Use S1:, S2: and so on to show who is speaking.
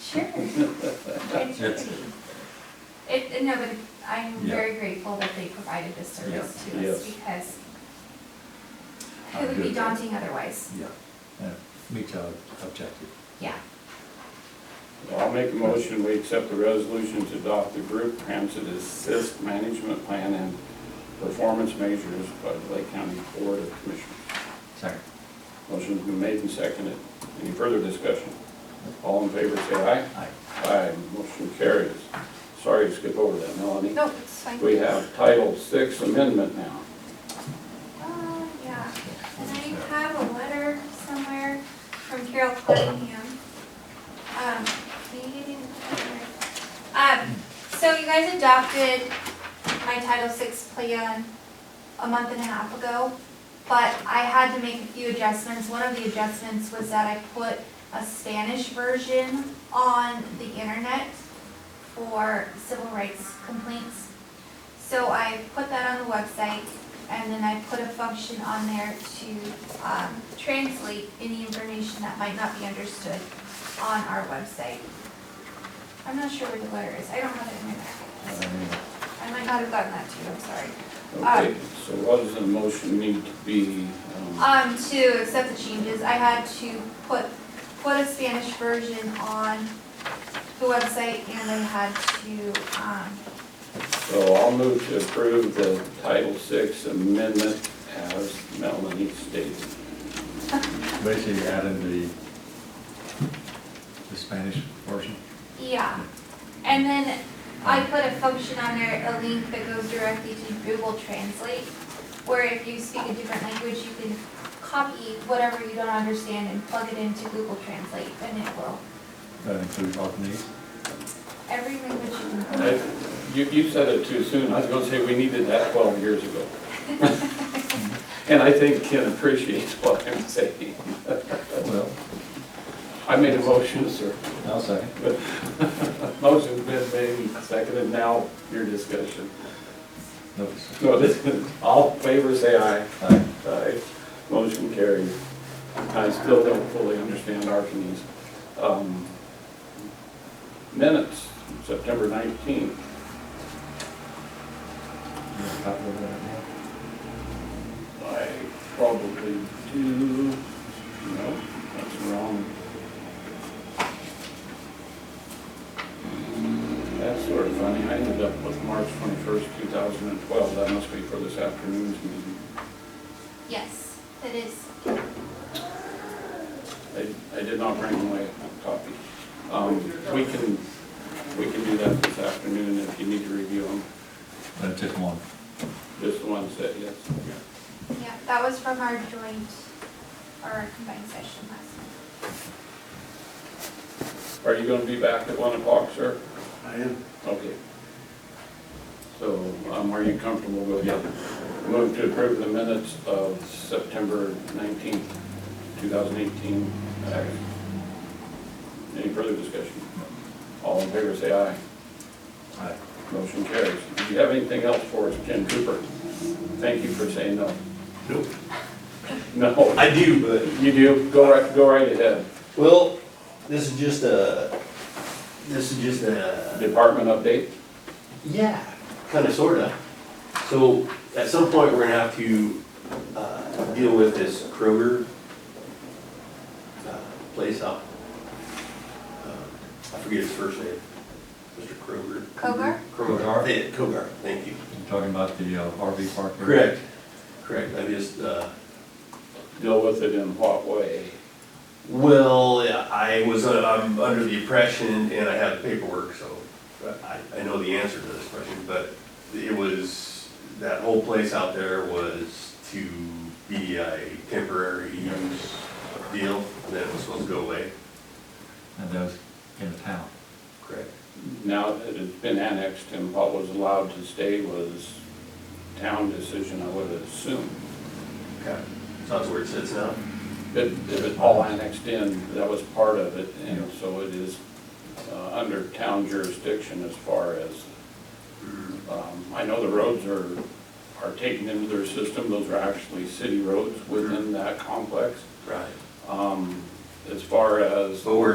S1: Sure. It's
S2: It's-
S1: pretty. It, it- no, but I'm
S2: Yeah.
S1: very grateful that they provided this service
S2: Yeah.
S1: to us
S2: Yes.
S1: because
S2: I'm
S1: it would be
S2: good.
S1: daunting otherwise,
S2: Yeah, that meets our objective.
S1: yeah.
S3: I'll make a motion, we accept the resolution to adopt the group transit assist management plan and performance measures by the Lake County Board of Commissioners.
S2: Sorry.
S3: Motion's been made and seconded. Any further discussion? All in favor, say aye.
S2: Aye.
S3: Aye, motion carries. Sorry to skip over that, Melanie.
S1: No, it's fine.
S3: We have Title Six Amendment now.
S1: Uh, yeah, and I have a letter somewhere from Carol Cunningham. Um, maybe I didn't put it right. Um, so you guys adopted my Title VI plan a month and a half ago, but I had to make a few adjustments. One of the adjustments was that I put a Spanish version on the internet for civil rights complaints. So I put that on the website, and then I put a function on there to um, translate any information that might not be understood on our website. I'm not sure where the letter is, I don't have it in my
S2: I
S1: packet.
S2: mean,
S1: I might not have gotten that too, I'm sorry.
S3: Okay, so what does the motion need to be? um,
S1: Um, to accept the changes, I had to put, put a Spanish version on the website, and I had to, um,
S3: So I'll move to approve the Title Six Amendment as Melanie stated.
S2: Basically adding the, the Spanish portion.
S1: Yeah, and then I put a function on there, a link that goes directly to Google Translate, where if you speak a different language, you can copy whatever you don't understand and plug it into Google Translate, and it will,
S2: That includes Orkneys.
S1: every language you can.
S3: I- You, you said it too soon. I was gonna say we needed that twelve years ago. And I think Ken appreciates what I'm saying.
S2: Well,
S3: I made a motion, sir.
S2: I'll second.
S3: Motion's been made, seconded, now your discussion.
S2: Notice.
S3: No, this, all in favor, say aye.
S2: Aye.
S3: Aye. Motion carried. I still don't fully understand Arcanese. Um, Minutes, September 19th.
S2: You want a copy of that now?
S3: I probably do, no, that's wrong. Mm, That's sort of funny, I ended up with March 21st, 2012, that must be for this afternoon's meeting.
S1: Yes, that is,
S3: I, I did not bring away a copy. Um, we can, we can do that this afternoon if you need to review them,
S2: That's just one.
S3: just the ones that, yes.
S1: yeah, that was from our joint, our combined session last night.
S3: Are you gonna be back at one o'clock, sir?
S4: I am.
S3: Okay. So, um, are you comfortable with it? Move to approve the minutes of September nineteenth, two thousand eighteen. Any further discussion? All in favor, say aye.
S2: Aye.
S3: Motion carries. Do you have anything else for us, Ken Cooper? Thank you for saying no.
S4: Nope.
S3: No,
S4: I do, but.
S3: you do, go right, go right ahead.
S4: Well, this is just a, this is just a,
S3: Department update?
S4: yeah, kinda sorta. So at some point, we're gonna have to, uh, deal with this Kroger, uh, place out. um, I forget his first name, Mr. Kroger.
S1: Kogar?
S2: Kogar?
S4: Yeah, Kogar, thank you.
S2: You're talking about the uh, RV park? there?
S4: Correct, correct, I just, uh,
S3: Deal with it in what way?
S4: Well, yeah, I was, uh, I'm under the impression, and I have the paperwork, so I, I know the answer to this question, but it was, that whole place out there was to be a temporary use deal, and then it was supposed to go away.
S2: And those in the town.
S4: Correct.
S3: Now that it's been annexed and what was allowed to stay was town decision, I would assume.
S4: Okay, so that's where it sits now?
S3: But if it all annexed in, that was part of it, and so it is uh, under town jurisdiction as far as Um, I know the roads are, are taken into their system, those are actually city roads within that complex.
S4: Right.
S3: Um, As far as
S4: So we're